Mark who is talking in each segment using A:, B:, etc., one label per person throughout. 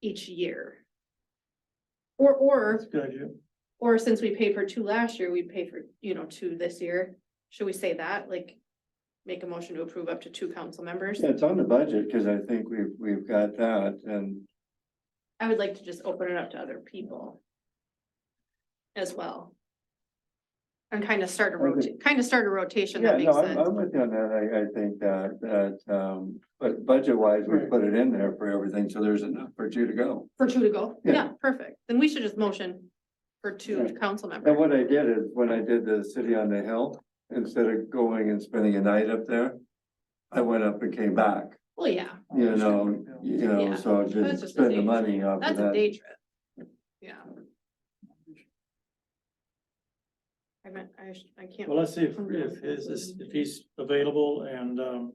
A: each year. Or, or,
B: Good idea.
A: or since we paid for two last year, we pay for, you know, two this year, should we say that, like? Make a motion to approve up to two council members,
C: Yeah, It's on the budget, cause I think we've, we've got that and
A: I would like to just open it up to other people. As well. And kind of start a rota, kind of start a rotation
C: yeah,
A: that
C: no,
A: makes
C: I'm,
A: sense,
C: I'm with you on that. I, I think that, that, um, but budget wise, we
B: Right.
C: put it in there for everything. So there's enough for you to go.
A: for two to go,
C: Yeah.
A: yeah, perfect, then we should just motion. For two
C: Yeah.
A: council
C: And
A: members,
C: what I did is when I did the city on the hill, instead of going and spending a night up there, I went up and came back,
A: well, yeah,
C: you know, you
A: Yeah.
C: know, so
A: That's
C: just
A: just a
C: spend the
A: day.
C: money off of
A: that's a
C: that.
A: day trip, yeah. I meant, I, sh- I can't.
B: Well, let's see if, if his, is- if he's available and, um,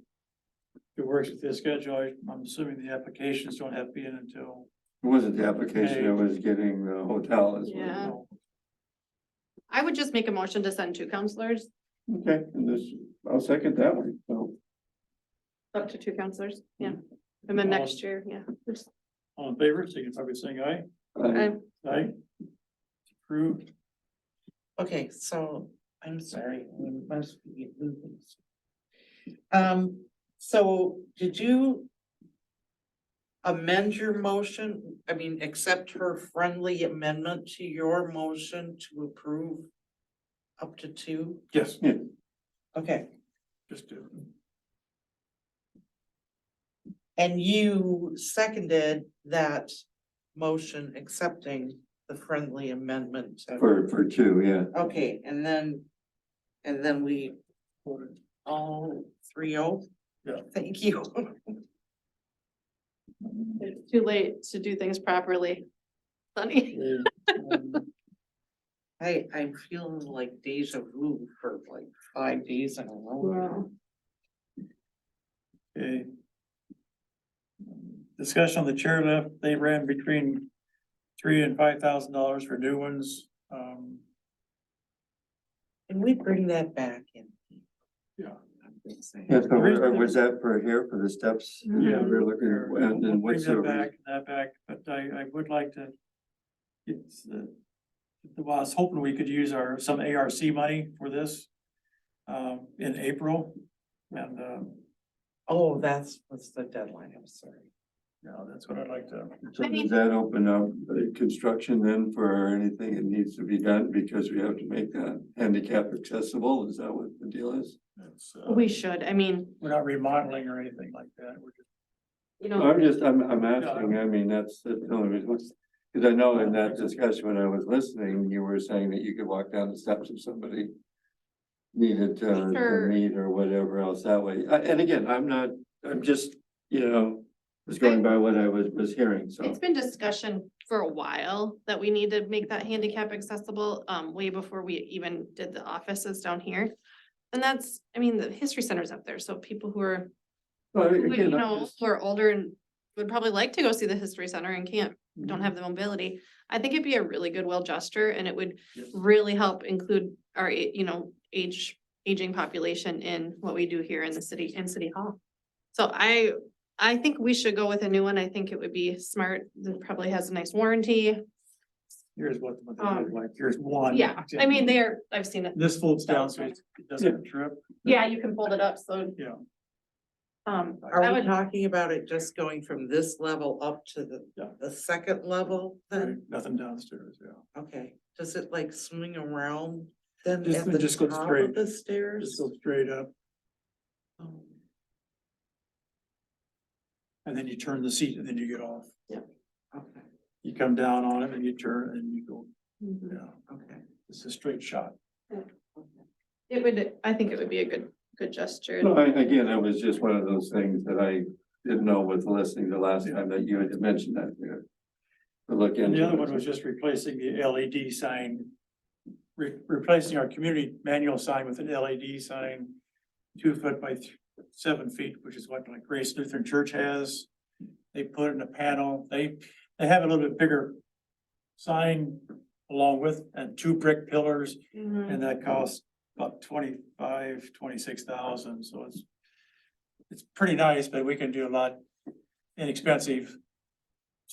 B: it works with his schedule. I- I'm assuming the applications don't have to be in until.
C: It wasn't the application, it was getting the hotel as well.
A: Yeah. I would just make a motion to send two counselors,
C: Okay, and this, I'll second that one, so.
A: up to two counselors, yeah, and then next year, yeah.
B: All in favor, signify by saying aye.
C: I-
A: I-
B: Aye. Approved.
D: Okay, so I'm sorry. I'm must be moving. Um, so did you? Amend your motion, I mean, accept her friendly amendment to your motion to approve? Up to two,
B: Yes,
C: Yeah,
D: okay,
B: just do. it.
D: and you seconded that motion accepting the friendly amendment. to-
C: for, for two, yeah.
D: Okay, and then, and then we all three oh?
B: Yeah.
D: Thank you.
A: It's too late to do things properly. Sunny,
B: Um,
D: I, I'm feeling like deja vu for like five days in a row.
B: Okay. Discussion on the chairlift, they ran between three and five thousand dollars for new ones. Um,
D: Can we bring that back in?
B: Yeah.
C: Yeah, so we're- was that for here, for the steps?
A: Yeah.
C: We're looking, at- and
B: We'll
C: then
B: Bring
C: what's
B: that
C: the,
B: back, that back, but I, I would like to. It's, uh, well, I was hoping we could use our, some ARC money for this, um, in April. And, um,
D: Oh, that's, what's the deadline, I'm sorry.
B: no, that's what I'd like to,
C: so does that open up uh, construction then for anything that needs to be done? Because we have to make that handicap accessible, is that what the deal is?
B: that's, uh,
A: we should, I mean,
B: we're not remodeling or anything like that. We're just,
A: you know,
C: I'm just, I'm, I'm asking, I mean, that's, that's the only reason, because I know in that discussion when I was listening, you were saying that you could walk down the steps if somebody needed to, to
A: Sure.
C: meet or whatever else that way. I- And again, I'm not, I'm just, you know, just going by what I was, was hearing, so.
A: it's been discussion for a while that we need to make that handicap accessible, um, way before we even did the offices down here. And that's, I mean, the history center's up there, so people who are,
C: But
A: who, you
C: again, I'm
A: know,
C: just-
A: who are older and would probably like to go see the history center and can't
C: Mm-hmm.
A: don't have the mobility, I think it'd be a really good well gesture and it would
C: Yes.
A: really help include our, a- you know, age, aging population in what we do here in the city, in City Hall. So I, I think we should go with a new one. I think it would be smart. It probably has a nice warranty.
B: here's what, what they
A: Um,
B: look like, here's one.
A: Yeah, I mean, they're, I've seen it.
B: This folds down, so it doesn't trip,
A: Yeah, you can fold it up, so,
B: yeah.
A: um, I
D: Are we
A: would,
D: talking about it just going from this level up to the,
B: Yeah.
D: the second level then?
B: Nothing downstairs, yeah.
D: Okay, does it like swing around then
B: Just-
D: at the
B: just go
D: top
B: straight.
D: of the
B: Just
D: stairs?
B: go straight up
D: Oh,
B: and then you turn the seat and then you get off.
D: Okay,
B: You come down on it and you turn and you go,
A: Mhm.
B: yeah,
D: okay,
B: it's a straight shot.
D: okay.
A: it would, I think it would be a good, good gesture.
C: No, I, again, it was just one of those things that I didn't know with listening the last time that you had mentioned that there. To look
B: And
C: into.
B: the other
C: it.
B: one was just replacing the LED sign, re- replacing our community manual sign with an LED sign, two foot by th- seven feet, which is what like Grace Lutheran Church has. They put in a panel, they, they have a little bit bigger sign along with, and two brick pillars,
A: Mhm.
B: and that costs about twenty-five, twenty-six thousand, so it's it's pretty nice, but we can do a lot inexpensive